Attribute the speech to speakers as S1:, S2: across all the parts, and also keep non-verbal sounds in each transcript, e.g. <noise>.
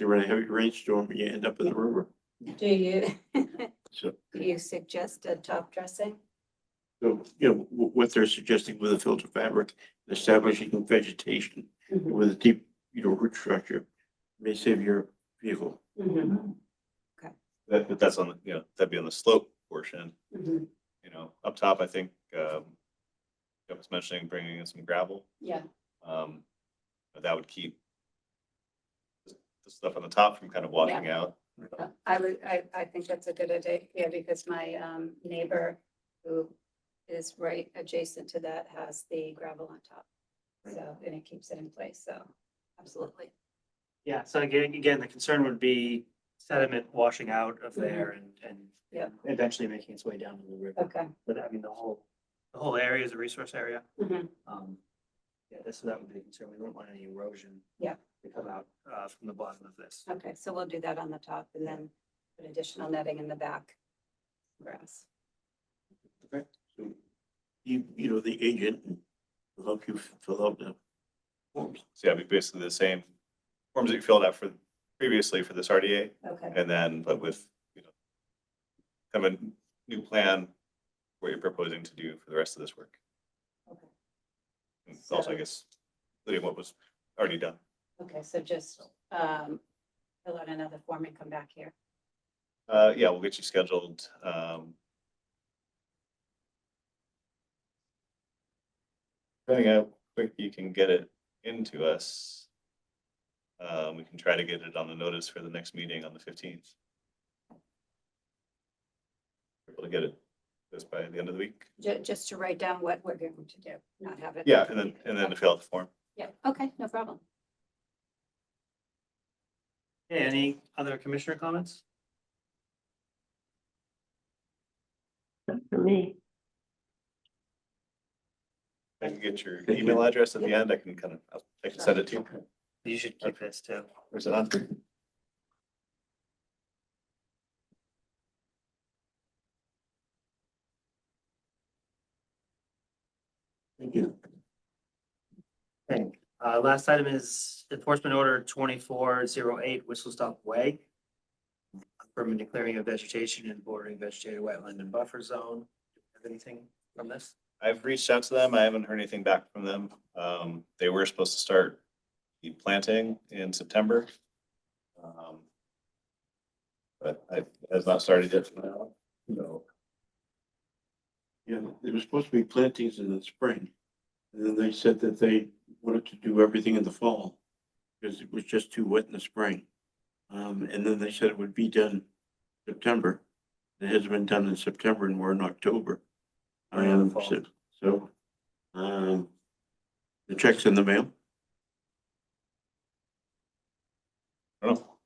S1: you run a heavy rainstorm, you end up in the river.
S2: Do you, <laughs>
S1: So,
S2: do you suggest a top dressing?
S1: so, you know, wh- what they're suggesting with a filter fabric, establishing vegetation with a deep, you know, root structure may save your vehicle.
S3: That, but that's on, the you know, that'd be on the slope portion,
S2: Mhm.
S3: you know, up top, I think, um, Jeff was mentioning bringing in some gravel,
S2: Yeah.
S3: um, but that would keep the stuff on the top from kind of washing out.
S2: Uh, I would, I, I think that's a good idea, yeah, because my um, neighbor who is right adjacent to that has the gravel on top. So, and it keeps it in place, so absolutely.
S4: Yeah, so again, again, the concern would be sediment washing out of there and, and
S2: Mhm. Yeah.
S4: eventually making its way down to the river.
S2: Okay.
S4: But I mean, the whole, the whole area is a resource area.
S2: Mhm.
S4: Um, yeah, this, that would be a concern. We don't want any erosion.
S2: Yeah.
S4: To come out, uh, from the bottom of this.
S2: Okay, so we'll do that on the top and then put additional netting in the back. Grass.
S1: So You, you know, the agent will help you fill out the forms.
S3: So yeah, it'd be basically the same forms that you filled out for previously for this RDA,
S2: Okay,
S3: and then, but with, you know, kind of a new plan, what you're proposing to do for the rest of this work.
S2: Okay.
S3: And also, I guess, including what was already done.
S2: okay, so just um, fill out another form and come back here.
S3: Uh, yeah, we'll get you scheduled, um. Depending on how quick you can get it into us. Uh, we can try to get it on the notice for the next meeting on the fifteenth. Able to get it just by the end of the week.
S2: Ju- just to write down what we're going to do, not have it.
S3: Yeah, and then, and then to fill out the form.
S2: Yeah, okay, no problem.
S4: Okay, any other commissioner comments?
S5: For me,
S3: I can get your email address at the end. I can kind of, I'll- I can send it to you.
S4: You should keep this too.
S3: Or is it on?
S1: Thank you.
S4: Uh, last item is enforcement order twenty-four zero eight Whistle Stop Way. Permanent declaring of vegetation and bordering vegetated wetland and buffer zone. Have anything from this?
S3: I've reached out to them. I haven't heard anything back from them. Um, they were supposed to start the planting in September. Um, But I, it has not started yet for now, so.
S1: Yeah, there was supposed to be plantings in the spring. And then they said that they wanted to do everything in the fall because it was just too wet in the spring. Um, and then they said it would be done September. It hasn't been done in September and we're in October.
S4: We're in the
S1: Um,
S4: fall.
S1: so, so, um, the check's in the mail.
S3: I don't know.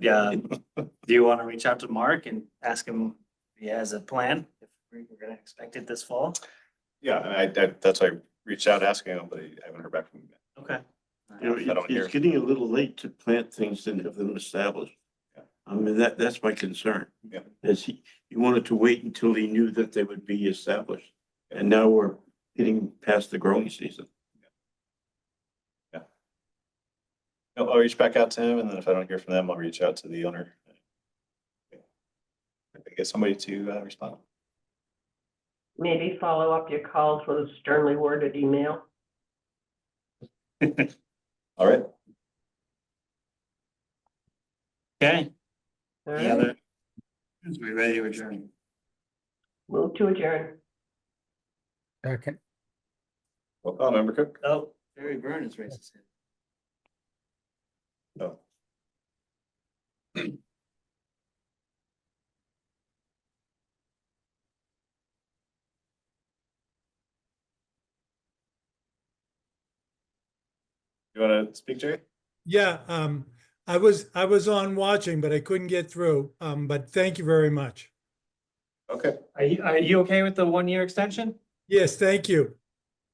S4: Yeah, um, <laughs> do you want to reach out to Mark and ask him if he has a plan? If we- we're gonna expect it this fall?
S3: Yeah, and I, I- that's why I reached out asking them, but I haven't heard back from them. yet.
S4: Okay.
S1: You know,
S3: I don't
S1: it's,
S3: hear.
S1: it's getting a little late to plant things and have them established.
S3: Yeah.
S1: I mean, that, that's my concern.
S3: Yeah.
S1: Is he, he wanted to wait until he knew that they would be established. And now we're getting past the growing season.
S3: No, I'll reach back out to him and then if I don't hear from them, I'll reach out to the owner. I Get somebody to uh, respond.
S5: maybe follow up your calls with a sternly worded email.
S3: All right.
S4: Okay.
S5: All
S4: Any
S5: right,
S4: other? We ready to adjourn?
S5: move to adjourn.
S6: Second.
S3: Well, call member Cook.
S4: Oh, Barry Byrne has raised his hand.
S3: No. You want to speak, Jerry?
S7: Yeah, um, I was, I was on watching, but I couldn't get through. Um, but thank you very much.
S3: Okay.
S4: Are you, are you okay with the one-year extension?
S7: Yes, thank you.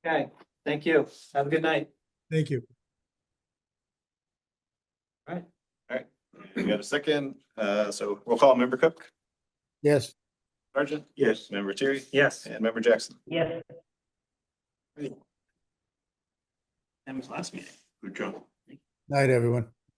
S4: Okay, thank you. Have a good night.
S7: Thank you.
S3: We got a second. Uh, so we'll call member Cook,
S6: Yes.
S3: Sergeant,
S1: Yes.
S3: member Terry,
S4: Yes.
S3: and member Jackson.
S5: Yes.
S4: That was last meeting.
S1: Good job.
S6: Night, everyone.